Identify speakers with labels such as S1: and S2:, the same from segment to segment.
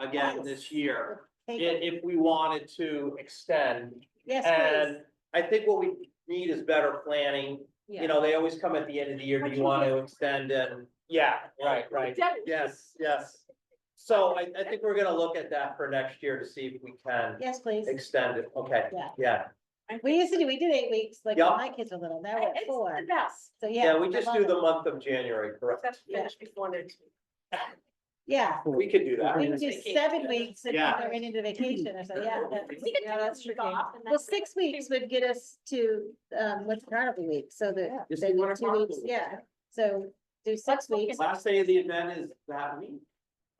S1: again
S2: Yes.
S1: this year,
S2: Take it.
S1: if, if we wanted to extend.
S2: Yes,
S1: And I think what we need is better planning,
S2: please.
S1: you know, they always come at the end of the year, do you want to extend and, yeah, right, right. Yes, yes. So I, I think we're gonna look at that for next year to see if we can
S2: Yes, please.
S1: extend it, okay,
S2: Yeah.
S1: yeah.
S2: We used to do, we did eight weeks, like when
S1: Yeah.
S2: my kids were little, now we're at
S3: It's
S2: four.
S3: the best.
S2: So, yeah.
S1: Yeah, we
S2: I
S1: just
S2: love
S1: do
S2: it.
S1: the month of January, correct?
S3: That's finished before next week.
S2: Yeah,
S1: We could do that.
S2: we can do seven
S3: Vacation.
S2: weeks and then
S1: Yeah.
S2: they're into vacation or so, yeah. that-
S3: We could
S2: Yeah,
S3: take
S2: that's
S3: a week
S2: tricky.
S3: off and
S2: Well,
S3: that's-
S2: six weeks would get us to, um, what's carnival week, so
S3: Yeah.
S2: that,
S1: Just
S2: then
S1: do one
S2: two
S1: o'clock.
S2: weeks, yeah. So do six
S3: Let's look
S2: weeks,
S3: at-
S1: Last day of the event is that week.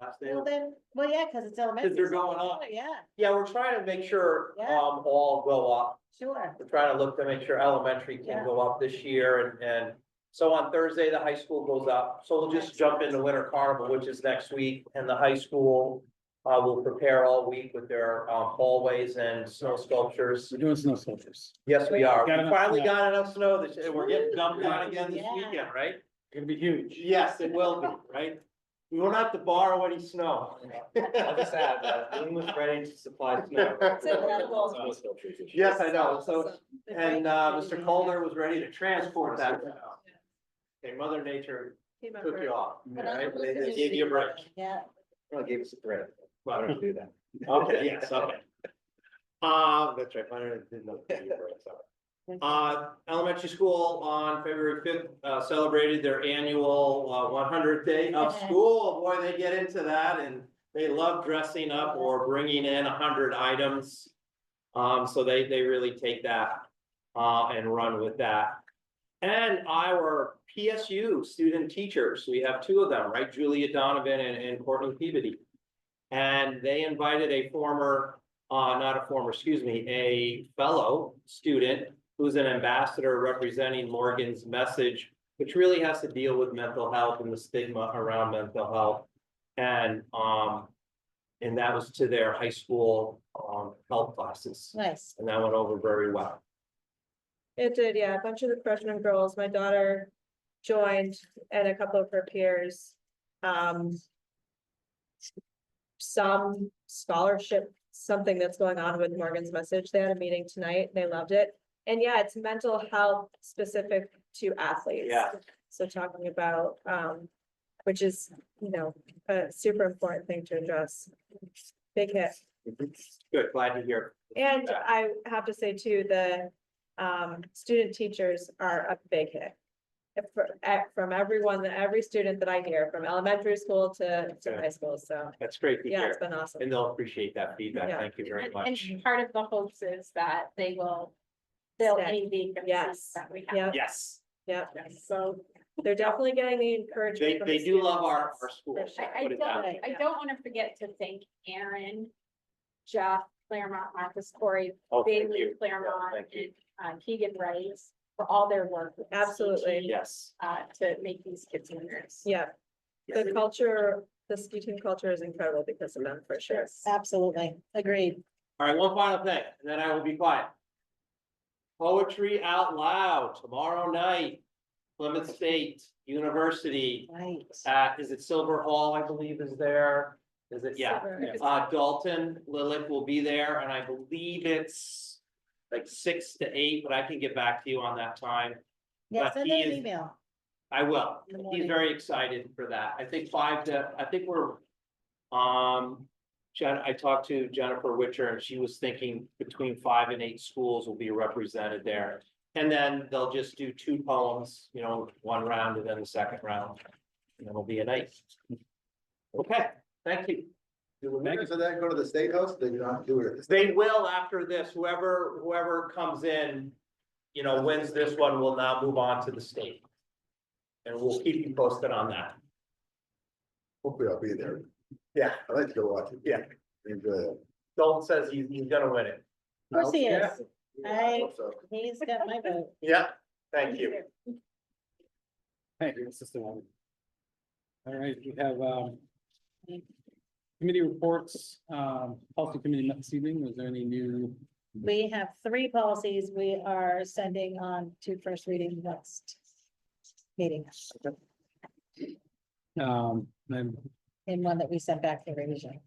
S1: Last day.
S2: well
S1: of-
S2: then, well, yeah, cause it's elementary.
S1: they're
S2: so
S1: going
S2: it's
S1: up.
S2: Yeah,
S1: Yeah, we're trying to make sure,
S2: Yeah.
S1: um, all go up.
S2: sure.
S1: We're trying to look to make sure elementary
S2: Yeah.
S1: can go up this year and, and so on Thursday, the high school goes up. So we'll just jump into Winter Carnival, which is next week, and the high school uh, will prepare all week with their, um, hallways and snow sculptures.
S4: We're doing snow soldiers.
S1: Yes, we are. We
S4: Got enough
S1: finally
S4: snow.
S1: got enough snow this, and we're getting dumped on again this
S2: Yeah.
S1: weekend, right?
S4: Gonna be huge.
S1: Yes, it will be, right? We won't have to borrow any snow.
S5: I'll just add that
S1: uh,
S5: Boone was ready to supply snow.
S1: Yes, I know, so, and, uh, Mr.
S2: Colner.
S1: Colner was ready to transport that. snow. Okay, Mother Nature took you off, right? They, they gave you a break.
S2: Yeah.
S5: Well, it gave us a break. I
S1: Well,
S5: don't do that.
S1: Okay, yes, okay. Uh, that's right, Mother Nature didn't know. to give you a break, sorry. Uh, elementary school on February fifth, uh, celebrated their annual, uh, one hundredth day of
S2: Yeah.
S1: school. Boy, they get into that and they love dressing up or bringing in hundred items. Um, so they, they really take that, uh, and run with that. And our PSU student teachers, we have two of them, right? Julia Donovan and, and Courtney Peabody. And they invited a former, uh, not a former, excuse me, a fellow student who's an ambassador representing Morgan's message, which really has to deal with mental health and the stigma around mental health. And, um, and that was to their high school, um, health classes,
S2: Nice.
S1: and that went over very well.
S6: It did, yeah, a bunch of the freshman girls, my daughter joined and a couple of her peers. Um. Some scholarship, something that's going on with Morgan's message, they had a meeting tonight, they loved it. And yeah, it's mental health specific to athletes.
S1: Yeah.
S6: So talking about, um, which is, you know, a super important thing to address. Big hit.
S1: Good, glad to hear.
S6: And
S1: Yeah.
S6: I have to say too, the um student teachers are a big hit. If- for- at- From everyone, that every student that I hear, from elementary school to to high school, so
S1: That's great to
S6: yeah, it's
S1: hear,
S6: been awesome.
S1: and they'll appreciate that feedback.
S6: Yeah.
S1: Thank you very
S3: And-
S1: much.
S3: And part of the hopes is that they will fill
S6: Stay.
S3: any vacancies
S6: Yes.
S3: that we have.
S6: Yeah,
S1: Yes,
S6: yeah,
S3: Yes.
S6: so they're definitely getting the encouragement.
S1: they,
S6: from
S1: they
S6: the
S1: do love our,
S6: students.
S1: our schools.
S3: I, I
S1: put it that way.
S3: don't, I don't want to forget to thank Aaron, Jeff, Claremont, Marcus Corey,
S1: Oh, thank
S3: Bailey,
S1: you.
S3: Claremont,
S1: thank you.
S3: and uh, Keegan Rice for all their work. with the
S6: Absolutely.
S3: CT,
S1: Yes.
S3: Uh, to make these kids winners.
S6: Yeah,
S1: Yes.
S6: the culture, the ski team culture is incredible because of them, for sure.
S2: Absolutely, agreed.
S1: All right, one final thing, and then I will be quiet. Poetry out loud tomorrow night, Plymouth State University,
S2: Right.
S1: uh, is it Silver Hall, I believe is there? Is it, yeah, uh, Dalton Lilith will be there, and I believe it's like six to eight, but I can get back to you on that time.
S2: Yeah,
S1: But
S2: send
S1: he
S2: them an
S1: is-
S2: email.
S1: I will.
S2: In the
S1: He's
S2: morning.
S1: very excited for that. I think five to, I think we're. Um, Jen, I talked to Jennifer Witcher and she was thinking between five and eight schools will be represented there. And then they'll just do two poems, you know, one round and then the second round. And it'll be a night. Okay, thank you.
S7: Do the winners of that go to the state house? They do not do it.
S1: They will after this, whoever, whoever comes in, you know, wins this one will now move on to the state. And we'll keep you posted on that.
S7: Hopefully I'll be there.
S1: Yeah.
S7: I like to go watch it.
S1: Yeah.
S7: Enjoy it.
S1: Dalton says he's, he's gonna win it.
S7: I hope-
S2: Of course he
S7: yeah.
S2: is. I-
S7: hope so.
S2: He's got my vote.
S1: Yeah. Thank you.
S4: Thank you, Mrs. Simone. All right, we have, um, committee reports, um, policy committee met this evening. Was there any new?
S2: We have three policies we are sending on to first reading next meeting,
S4: Um, and um,
S2: and one that we sent back for revision.